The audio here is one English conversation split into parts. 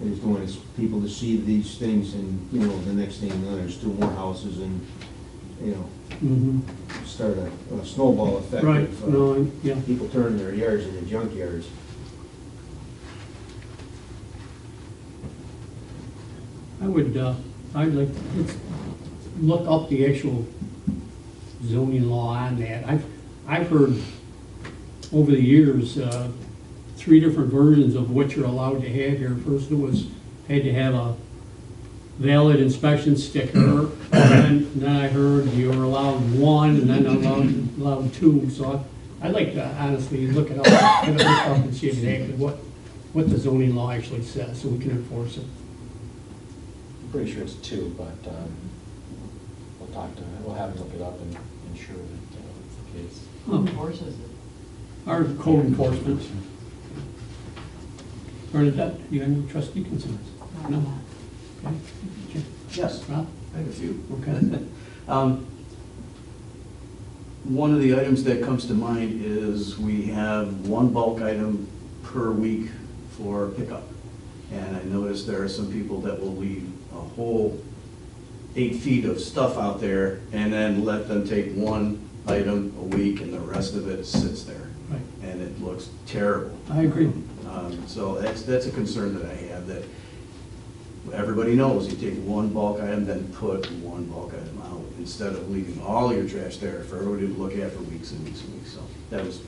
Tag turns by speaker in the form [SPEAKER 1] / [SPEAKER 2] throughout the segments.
[SPEAKER 1] is doing is people to see these things and, you know, the next thing you know, there's two more houses and, you know,
[SPEAKER 2] Mhm.
[SPEAKER 1] start a a snowball effect.
[SPEAKER 2] Right,
[SPEAKER 1] of, uh,
[SPEAKER 2] no, I- yeah,
[SPEAKER 1] People turning their yards into junkyards.
[SPEAKER 2] I would, uh, I'd like, let's look up the actual zoning law on that. I've, I've heard over the years, uh, three different versions of what you're allowed to have here. First it was, had to have a valid inspection sticker, and then I heard you were allowed one, and then allowed, allowed two, so I- I'd like to honestly look it up, kind of look up and see exactly what, what the zoning law actually says, so we can enforce it.
[SPEAKER 3] I'm pretty sure it's two, but um, we'll talk to, we'll have him look it up and ensure that uh, it's the case.
[SPEAKER 4] Who enforces it?
[SPEAKER 2] Our code enforcement. Bernadette, you have any trustee concerns? No? Okay. Jim?
[SPEAKER 5] Yes,
[SPEAKER 2] Rob?
[SPEAKER 5] I have a few.
[SPEAKER 2] Okay.
[SPEAKER 5] Um, One of the items that comes to mind is we have one bulk item per week for pickup. And I noticed there are some people that will leave a whole eight feet of stuff out there and then let them take one item a week and the rest of it sits there.
[SPEAKER 2] Right.
[SPEAKER 5] And it looks terrible.
[SPEAKER 2] I agree.
[SPEAKER 5] Um, So that's, that's a concern that I have, that everybody knows, you take one bulk item, then put one bulk item out, instead of leaving all your trash there for everybody to look at for weeks and weeks and weeks. So that was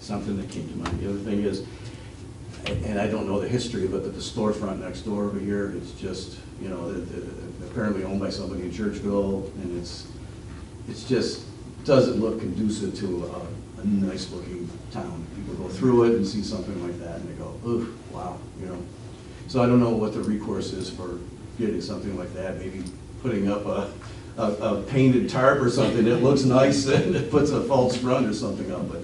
[SPEAKER 5] something that came to mind. The other thing is, and and I don't know the history, but the storefront next door over here is just, you know, the- the- apparently owned by somebody in Churchville, and it's, it's just, doesn't look conducive to a, a nice looking town. People go through it and see something like that and they go, ooh, wow, you know? So I don't know what the recourse is for getting something like that, maybe putting up a, a, a painted tarp or something that looks nice and it puts a false front or something up, but,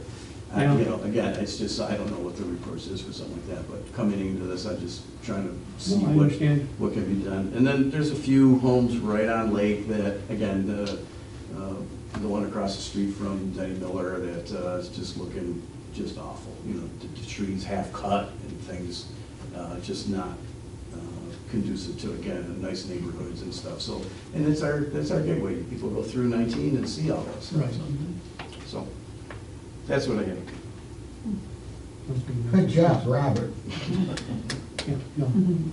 [SPEAKER 5] I-
[SPEAKER 2] Yeah.
[SPEAKER 5] you know, again, it's just, I don't know what the recourse is for something like that, but coming into this, I'm just trying to see
[SPEAKER 2] No, I
[SPEAKER 5] what,
[SPEAKER 2] understand.
[SPEAKER 5] what can be done. And then there's a few homes right on Lake that, again, the, uh, the one across the street from Denny Miller that uh, is just looking just awful, you know, the the trees half cut and things, uh, just not uh, conducive to, again, nice neighborhoods and stuff, so. And it's our, that's our gateway, people go through 19 and see all that stuff,
[SPEAKER 2] Right.
[SPEAKER 5] so- so, that's what I have.
[SPEAKER 6] Good job, Robert.
[SPEAKER 2] Yeah, no.
[SPEAKER 4] Mm-hmm.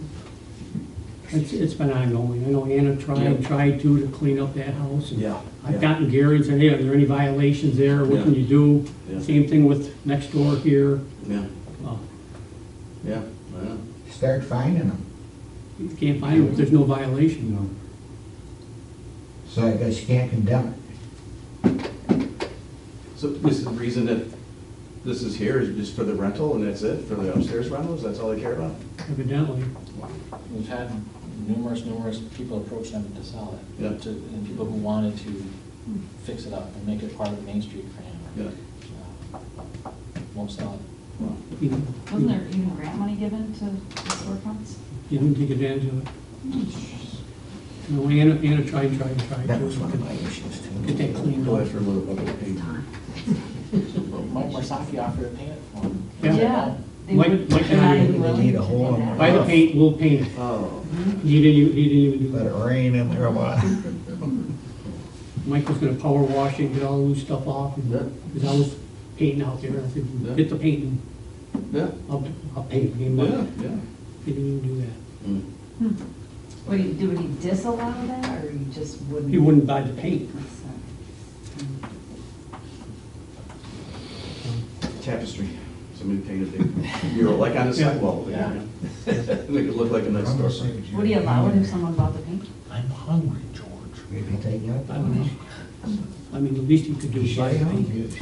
[SPEAKER 2] It's, it's been ongoing. I know Anna tried, tried to, to clean up that house. and
[SPEAKER 5] Yeah,
[SPEAKER 2] I've
[SPEAKER 5] yeah.
[SPEAKER 2] gotten Gary and said, hey, are there any violations there? What can
[SPEAKER 5] Yeah.
[SPEAKER 2] you do?
[SPEAKER 5] Yeah.
[SPEAKER 2] Same thing with next door here.
[SPEAKER 5] Yeah,
[SPEAKER 2] Uh,
[SPEAKER 5] yeah, I know.
[SPEAKER 6] Start finding them.
[SPEAKER 2] You can't find them if there's no violation.
[SPEAKER 6] So I guess you can't condemn it.
[SPEAKER 5] So this is the reason that this is here, is just for the rental, and that's it, for the upstairs rentals, that's all they care about?
[SPEAKER 2] Evidently,
[SPEAKER 3] We've had numerous, numerous people approach them to sell it.
[SPEAKER 5] Yeah.
[SPEAKER 3] to- And people who wanted to fix it up and make it part of Main Street for
[SPEAKER 5] Yeah.
[SPEAKER 3] him. Won't sell it.
[SPEAKER 2] you know.
[SPEAKER 4] Wasn't there even grant money given to the storefronts?
[SPEAKER 2] You didn't take advantage of it. No, Anna, Anna tried, tried, tried.
[SPEAKER 6] That was one of my issues
[SPEAKER 2] Get
[SPEAKER 6] too.
[SPEAKER 2] that cleaned
[SPEAKER 5] Go
[SPEAKER 2] up.
[SPEAKER 5] after a little bucket of paint.
[SPEAKER 3] Mike Marsaki offered to paint it for him.
[SPEAKER 2] Yeah.
[SPEAKER 4] They
[SPEAKER 2] Like-
[SPEAKER 4] would-
[SPEAKER 2] like
[SPEAKER 4] they're not
[SPEAKER 2] I-
[SPEAKER 4] even willing
[SPEAKER 6] Need a
[SPEAKER 4] to do
[SPEAKER 6] hole in
[SPEAKER 4] that.
[SPEAKER 2] Buy the paint, we'll paint it.
[SPEAKER 5] Oh,
[SPEAKER 2] He didn't, even- he didn't even do
[SPEAKER 6] Let it
[SPEAKER 2] that.
[SPEAKER 6] rain in there a while.
[SPEAKER 2] Mike was gonna power wash it, get all the loose stuff off,
[SPEAKER 5] Yeah.
[SPEAKER 2] and, because I was painting out there, I said,
[SPEAKER 5] Yeah.
[SPEAKER 2] get the paint, and
[SPEAKER 5] yeah,
[SPEAKER 2] I'll, I'll paint, he
[SPEAKER 5] yeah,
[SPEAKER 2] didn't
[SPEAKER 5] yeah.
[SPEAKER 2] even do that.
[SPEAKER 5] Mm.
[SPEAKER 4] What do you, do? would he disallow that, or you just wouldn't?
[SPEAKER 2] He wouldn't buy the paint.
[SPEAKER 5] Tapestry, somebody painted a big mural, like on the
[SPEAKER 2] Yeah.
[SPEAKER 5] sidewalk.
[SPEAKER 3] Yeah.
[SPEAKER 5] Make it look like a nice storefront.
[SPEAKER 4] Would he allow it if someone bought the paint?
[SPEAKER 7] I'm hungry, George.
[SPEAKER 6] Maybe take it
[SPEAKER 2] I
[SPEAKER 6] out.
[SPEAKER 2] don't know. I mean, the least he could do is buy the paint.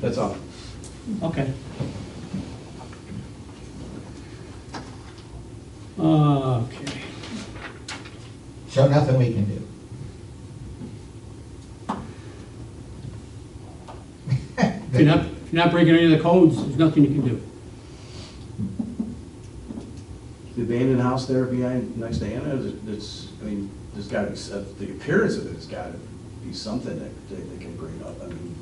[SPEAKER 5] That's all.
[SPEAKER 2] Okay. Okay.
[SPEAKER 6] So nothing we can do.
[SPEAKER 2] If you're not, if you're not breaking any of the codes, there's nothing you can do.
[SPEAKER 5] The abandoned house there behind, next to Anna, is- it's, I uh, mean, there's got to be, some- the appearance of it has got to be something that that they can bring up. I mean,